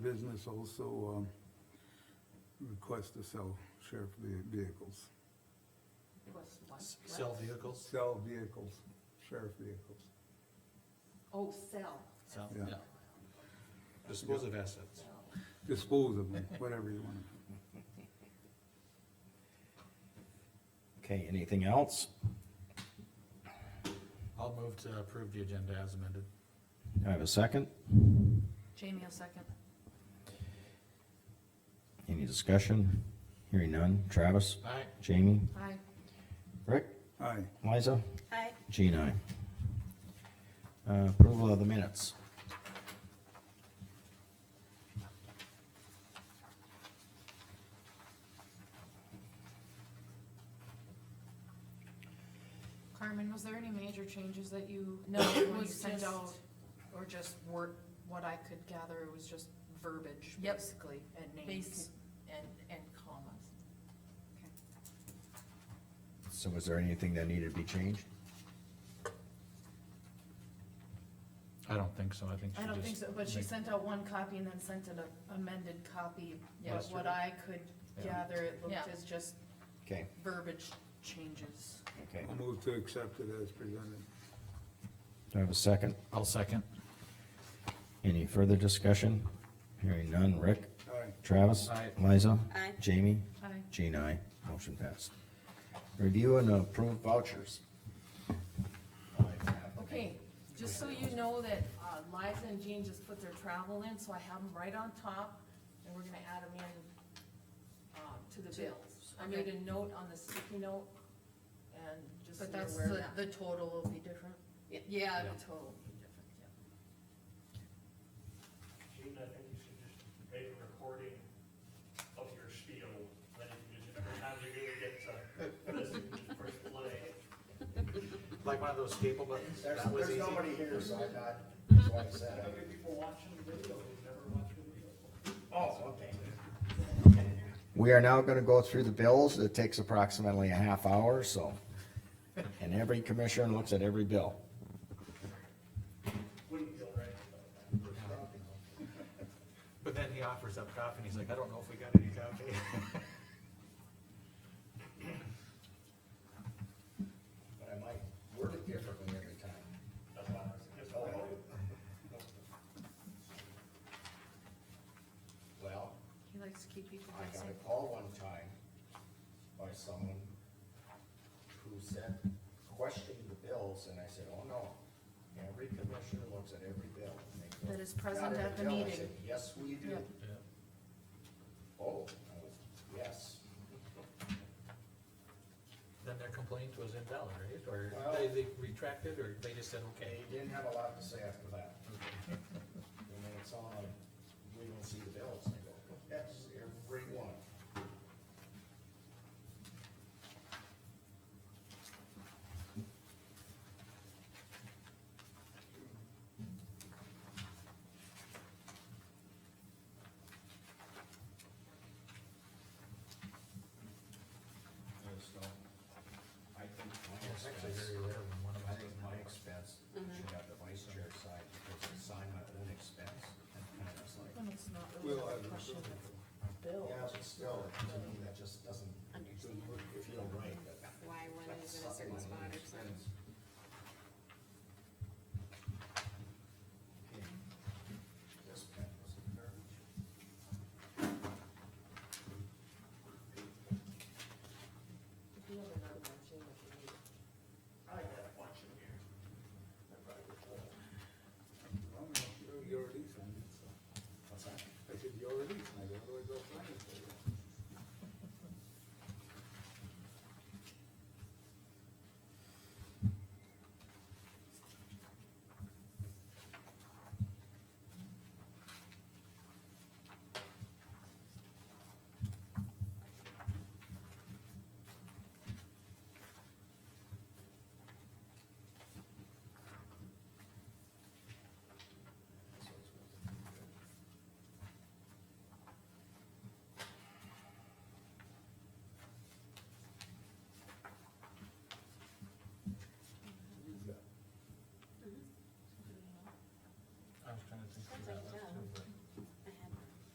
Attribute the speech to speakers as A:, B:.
A: has also, um, requested to sell sheriff ve- vehicles,
B: Request what?
C: S-
B: What?
C: Sell vehicles?
A: sell vehicles, sheriff vehicles.
B: Oh, sell.
C: Sell,
A: Yeah.
C: yeah. Dispose of assets.
A: Dispose of them, whatever you want.
D: Okay, anything else?
C: I'll move to approve the agenda as amended.
D: Do I have a second?
B: Jamie, a second.
D: Any discussion? Hearing none. Travis?
C: Aye.
D: Jamie?
B: Aye.
D: Rick?
A: Aye,
D: Liza?
B: Aye.
D: Jean, aye. Uh, approval of the minutes.
E: Carmen, was there any major changes that you,
B: No,
E: when you
B: was
E: sent
B: just-
E: out, or just word, what I could gather, it was just verbiage,
B: Yep.
E: basically, and names?
B: Basic and, and commas.
D: So was there anything that needed to be changed?
C: I don't think so, I think she
E: I
C: just.
E: don't think so, but she
C: make-
E: sent out one copy and then sent an amended copy,
B: Yeah.
E: but what I could
C: Yeah.
E: gather, it
B: Yeah.
E: looked as just
D: Okay,
E: verbiage changes.
D: okay.
A: I'll move to accept it as presented.
D: Do I have a second?
C: I'll second.
D: Any further discussion? Hearing none. Rick?
A: Aye,
D: Travis?
C: Aye.
D: Liza?
F: Aye.
D: Jamie?
E: Aye.
D: Jean, aye. Motion passed. Review and approve vouchers.
B: Okay, just so you know that uh, Liza and Jean just put their travel in, so I have them right on top, and we're gonna add them in, um, to the
E: To-
B: bills. I
E: okay.
B: made a note on the sticky note, and just so
E: But
B: you're
E: that's,
B: aware of
E: the,
B: that.
E: the total will be different.
B: Y- Yeah,
C: Yeah.
B: the total would be different, yeah.
G: Gene, I think you should just make a recording of your spiel, then you can just, every time you really get to listen, just push play.
C: Like one of those staple buttons?
H: There's,
C: That was
H: there's
C: easy.
H: nobody here, so I'm not, that's why I said,
G: Other people watching the video, who've never watched the video.
H: oh, okay.
D: We are now gonna go through the bills. It takes approximately a half hour, so. And every commissioner looks at every bill.
G: Wouldn't feel right.
C: But then he offers up coffee and he's like, I don't know if we got any coffee.
D: But I might word it differently every time.
G: That's why I was just
D: Well,
E: He likes to keep people
D: I got
E: guessing.
D: a call one time by someone who said, questioned the bills, and I said, oh no. Every commissioner looks at every bill. and they go,
E: That is
D: "Not
E: present
D: every
E: at the
D: bill." I
E: meeting.
D: said, Yes, we do.
E: Yep.
C: Yeah.
D: Oh, yes.
C: Then their complaint was invalid, right? Or
D: Well-
C: they, they retracted, or they just said, okay?
D: He didn't have a lot to say after that. And then it's all like, we don't see the bills, and they go, yes, every one. There's no, I think my
C: It's actually
D: expense-
C: very rare when one of
D: I
C: us
D: think
C: doesn't
D: my
C: like it.
D: expense
F: Mm-hmm.
D: should have the vice chair side, because it's on my own expense, and kind of like,
E: And it's not really
A: we'll
E: a
A: have it.
E: question of
D: yeah, but still, to me, that just doesn't feel right. that-
F: Why one
D: that's
F: is in a certain
D: something
F: spot
D: I
F: or something.
D: expense. Okay. This pen was in garbage.
B: If you have another one, Jean, if you need.
G: I got a bunch in here. I probably would hold.
A: You already signed it, so.
D: What's that?
A: I said, you already signed it, otherwise I'll sign it for you.
C: I was trying to think through that.